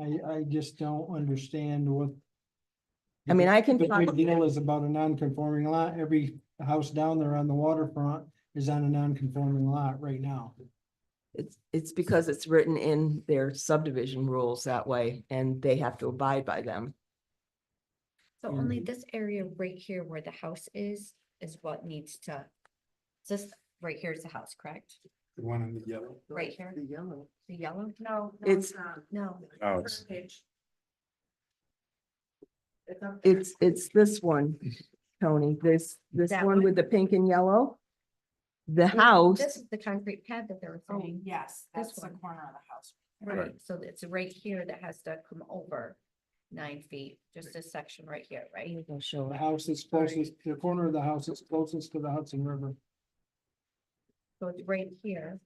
I, I just don't understand what. I mean, I can The talk, big deal is about a non-conforming lot. Every house down there on the waterfront is on a non-conforming lot right now. it's, it's because it's written in their subdivision rules that way and they have to abide by them. So Yeah. Mm-hmm. only this area right here where the house is, is what needs to, this, right here is the house, correct? The one in the yellow. Right here, The yellow. the yellow, No. no, It's- not. no, Oh, First page. It's up there. It's, it's this one, Tony, this, this That one with one? the pink and yellow. The house, this is the concrete pad that they were Oh, saying. Yes, This that's the one. corner of the house. Right, so it's right here that has to come over nine feet, just this section right here, right? Mm-hmm. The house is closest, the corner of the house is closest to the Hudson River. So it's right here.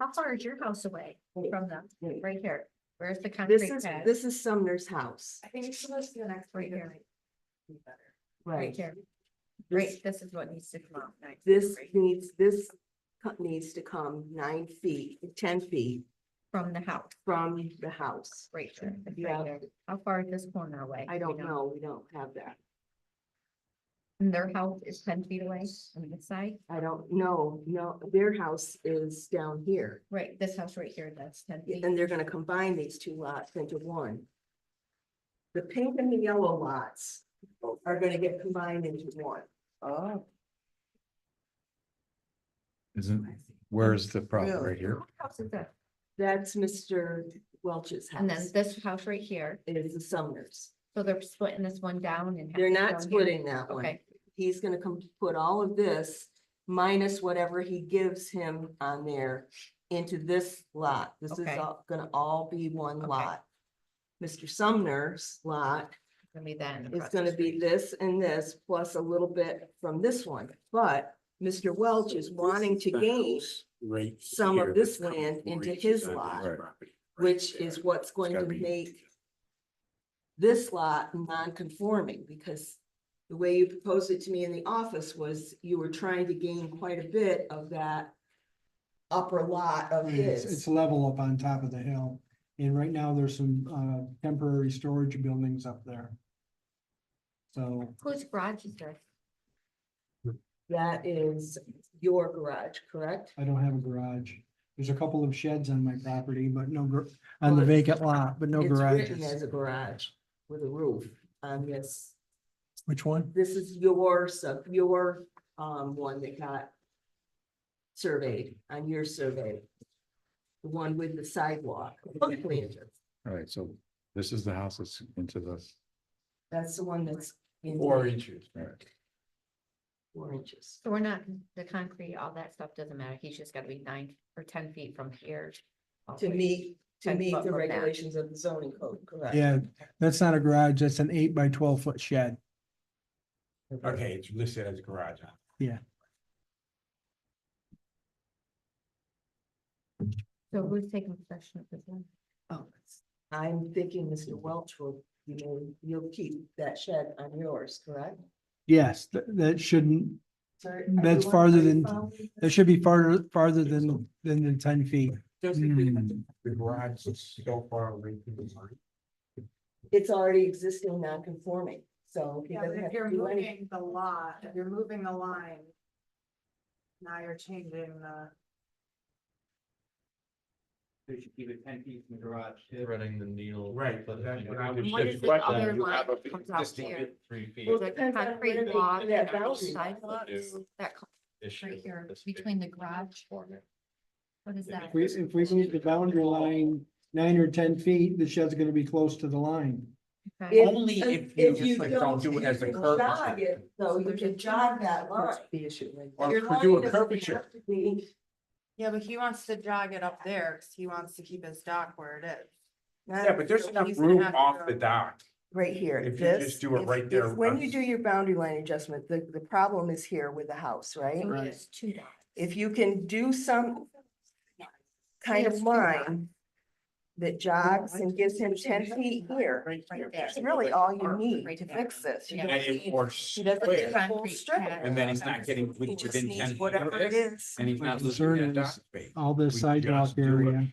How far is your house away from them? wait. Right here, where's the this concrete is, pad? this is Sumner's house. I think it's supposed to be the next Right right here. here. Right here, This, right, this is what needs to come out. nine feet this right needs, this co- needs to come nine feet, ten feet From the house, from the house. right here, it's Yeah. right there. How far is this corner away? I We don't know, we don't have that. And their house is ten feet away on this side? I don't know, no, their house is down here. Right, this house right here, that's ten feet. And they're gonna combine these two lots into one. The pink and the yellow lots are gonna get combined into one. Oh. Isn't, where's the problem Really? right here? What house is that? That's Mr. Welch's And then house. this house right here, It is the Sumners. so they're splitting this one down and. half They're down here? not splitting that one. Okay, He's gonna come put all of this minus whatever he gives him on there into this lot. This is Okay. all gonna all be one Okay. lot. Mr. Sumner's lot it's gonna be then. It's gonna be this and this plus a little bit from this one, but Mr. Welch is wanting to gain, gain some of this land into his lot, which is what's going to gotta be- make this lot non-conforming, because the way you proposed it to me in the office was you were trying to gain quite a bit of that upper lot of It's, Mm, it's his. level up on top of the hill. And right now there's some, uh, temporary storage buildings up there. So Whose garage is there? That is your garage, correct? I don't have a garage. There's a couple of sheds on my property, but no, gar- on the Well, it's- vacant lot, but no It's written garages. As a garage with a roof on this Which one? this is your sub, your um one that got surveyed on your survey. The one with the sidewalk. Alright, so this is the house that's into the. That's the one that's in inches. Right, four inches. So we're not, the concrete, all that stuff doesn't matter. He's just gotta be nine or ten feet from here. all the To way. meet, to Ten meet foot the from that. regulations of the zoning code, correct? Yeah, that's not a garage. That's an eight by twelve foot shed. Okay, it's listed as a garage. huh? So who's taking possession of this one? Oh, it's- I'm thinking Mr. Welch will, you know, you'll keep that shed on yours, correct? Yes, that, that shouldn't, Sorry, are That's you on- are farther you than- following that this? should be farther, farther than, than the ten feet. Mm. The garage is so far away from the line. It's already existing non-conforming, so he Yeah, but doesn't have if to you're do anything. moving the lot, if you're moving the line. Now you're changing the, They should keep it ten feet from the garage. threading the needle. Right, but that's you what know, I if would you What just is the wet other that, you line have a that comes out existing here? Three feet. Well, The depends on where they concrete do block that and all boundary the line. sidewalks, New that co- issue right with here, this big between the garage, corner. what is If that? If we, if we move the boundary line nine or ten feet, the shed's gonna be close to the line. Okay. If- Only uh, if you just like don't do it you as a can curve. jog it, Though you There's can a- jog that line. the issue, like. Or Your could do line a doesn't have curvature. to be- Yeah, but he wants to jog it up there, cause he wants to keep his dock where it is. Yeah, but there's So enough he's gonna room have to off the go- dock. Right here. If you just this do it is- right there is When on- you do your boundary line adjustment, the, the problem is here with the house, right? So it's two dots. If you can do some kind of Yes, we are. line that jogs and gives him ten feet here, that's really all you need to fix this. You Yeah. don't And- need- Or He doesn't Put the need a square, whole concrete strip of pad. and then he's not getting He within just ten needs feet of Whatever it this, is. and he's My not losing concern that dock is space. All this We just sidewalk do it. area